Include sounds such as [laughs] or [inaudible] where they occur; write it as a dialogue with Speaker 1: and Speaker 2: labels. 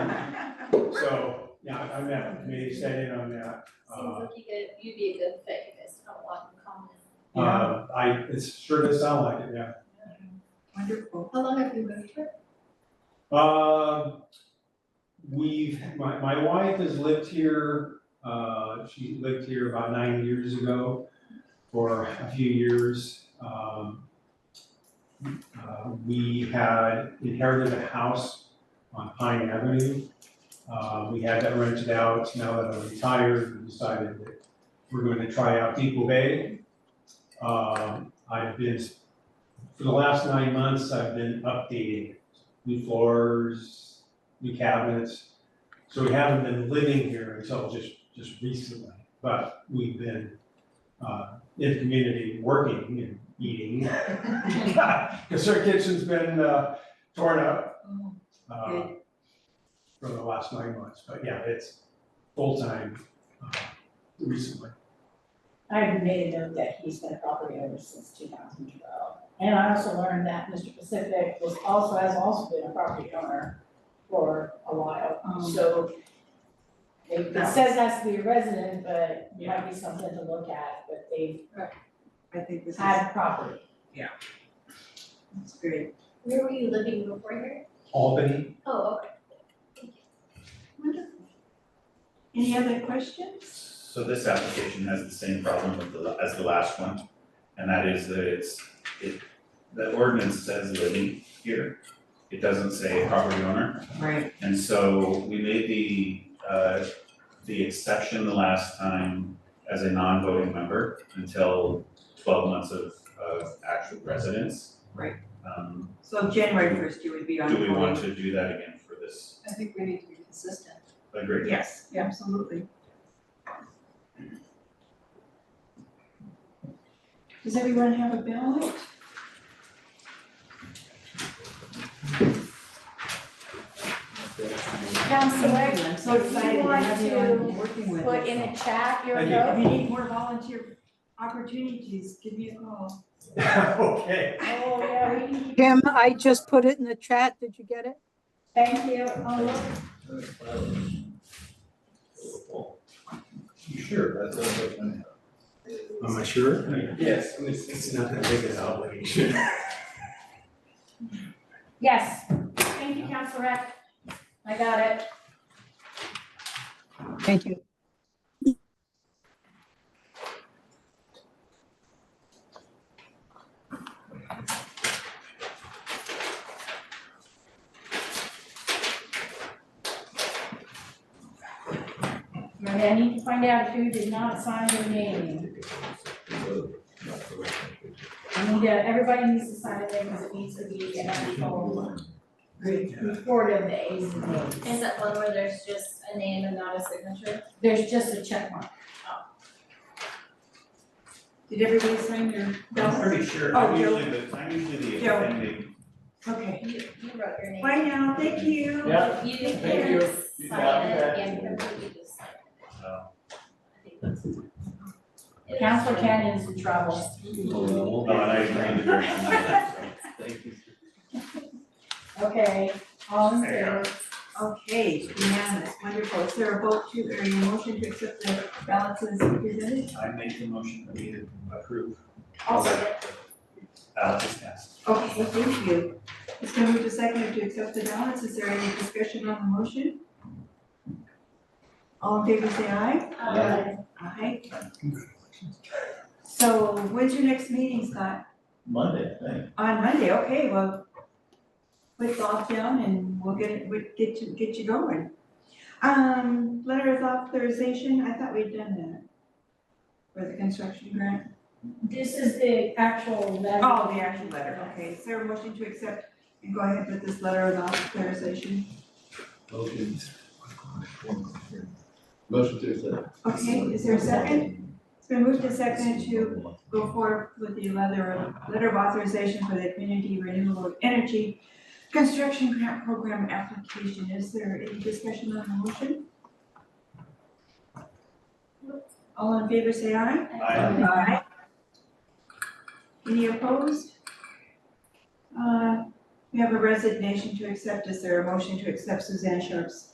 Speaker 1: so, yeah, I'm that, maybe set in on that.
Speaker 2: Seems
Speaker 1: Uh,
Speaker 2: like you could, you'd be a good fit, you guys don't want to come
Speaker 1: uh, I, it sure does sound like it, yeah.
Speaker 3: Wonderful.
Speaker 2: How long have you been here?
Speaker 1: Um we've, my, my wife has lived here, uh, she lived here about nine years ago for a few years. Um, uh, we had inherited a house on Pine Avenue. Uh, we had that rented out, now that I'm retired, we decided that we're going to try out Depot Bay. Um, I've been, for the last nine months, I've been updating new floors, new cabinets. So we haven't been living here until just, just recently, but we've been, uh, in the community, working and eating. [laughs] Cause our kitchen's been, uh, torn up, uh, for the last nine months, but yeah, it's full-time, uh, recently.
Speaker 4: I've made a note that he's been a property owner since two thousand twelve. And I also learned that Mr. Pacific was also, has also been a property owner for a while,
Speaker 3: Um,
Speaker 4: so it it says has to be a resident, but it might be something to look at, but they've
Speaker 3: I think this is,
Speaker 4: had property.
Speaker 3: that's great.
Speaker 2: Where were you living before here?
Speaker 1: Albany, [laughs]
Speaker 2: Oh, okay. Thank you.
Speaker 3: Wonderful. Any other questions?
Speaker 5: So this application has the same problem with the, as the last one, and that is that it's, it, the ordinance says living here. It doesn't say property owner,
Speaker 3: Right.
Speaker 5: and so we made the, uh, the exception the last time as a non-voting member until twelve months of, of actual residence.
Speaker 3: Right.
Speaker 5: Um,
Speaker 3: So January first, you would be on.
Speaker 5: do we want
Speaker 3: board.
Speaker 5: to do that again for this?
Speaker 6: I think we need to be consistent.
Speaker 5: Agreed.
Speaker 3: Yes, absolutely. Does everyone have a ballot?
Speaker 4: Counselor,
Speaker 3: I'm so excited to have you on, working with
Speaker 4: put in
Speaker 3: us.
Speaker 4: the chat your
Speaker 1: Thank you.
Speaker 3: If
Speaker 4: vote.
Speaker 3: you need more volunteer opportunities, give me a call.
Speaker 1: okay.
Speaker 4: Oh, yeah, we need,
Speaker 7: Jim, I just put it in the chat. Did you get it?
Speaker 4: thank you. Oh, look,
Speaker 5: Sure, that's
Speaker 8: Am I sure?
Speaker 1: Yes.
Speaker 8: It's, it's not that big an obligation.
Speaker 4: Yes, thank you, Counselor Rath. I got it.
Speaker 7: Thank you.
Speaker 4: Maria, I need to find out who did not sign their name. I need to, everybody needs to sign it because it needs to be an actual re- report of the A's and
Speaker 2: Is
Speaker 4: B's.
Speaker 2: that one where there's just a name and not a signature?
Speaker 4: There's just a check mark.
Speaker 3: Did everybody sign their
Speaker 5: I'm
Speaker 3: ballot?
Speaker 5: pretty sure,
Speaker 3: Oh,
Speaker 5: I'm
Speaker 3: Joe.
Speaker 5: usually the, I'm usually the
Speaker 3: Joe.
Speaker 5: offending,
Speaker 3: Okay.
Speaker 2: You, you wrote your name.
Speaker 3: Bye now, thank you.
Speaker 1: Yeah.
Speaker 2: You
Speaker 1: Thank you.
Speaker 2: can sign it and completely just sign it.
Speaker 5: uh,
Speaker 2: I think that's.
Speaker 4: Counselor Canyon's in trouble.
Speaker 5: oh, and I agree with your comment, so, thank you.
Speaker 4: Okay, all in favor?
Speaker 3: Okay, unanimous, wonderful. Is there a vote to, or a motion to accept the ballots as presented?
Speaker 5: I make the motion that we approve.
Speaker 2: Also,
Speaker 5: Alex is passed.
Speaker 3: Okay, thank you. It's been moved to second to accept the ballots. Is there any discussion on the motion? All in favor, say aye.
Speaker 2: uh,
Speaker 3: Aye. So when's your next meeting, Scott?
Speaker 5: Monday, I think.
Speaker 3: On Monday, okay, well, put Bob down and we'll get, it. we'll get you, get you going. Um, letter of authorization, I thought we'd done that. For the construction grant.
Speaker 4: This is the actual letter.
Speaker 3: Oh, the action letter, okay, is there a motion to accept and go ahead with this letter of authorization?
Speaker 9: Motion to accept.
Speaker 3: Okay, is there a second? It's been moved to second to go forward with the letter of, letter of authorization for the Community Renewable Energy Construction Grant Program application, is there any discussion on the motion? All in favor, say aye.
Speaker 5: I,
Speaker 3: Aye. Any opposed? Uh, we have a resignation to accept, is there a motion to accept Suzanne Sharp's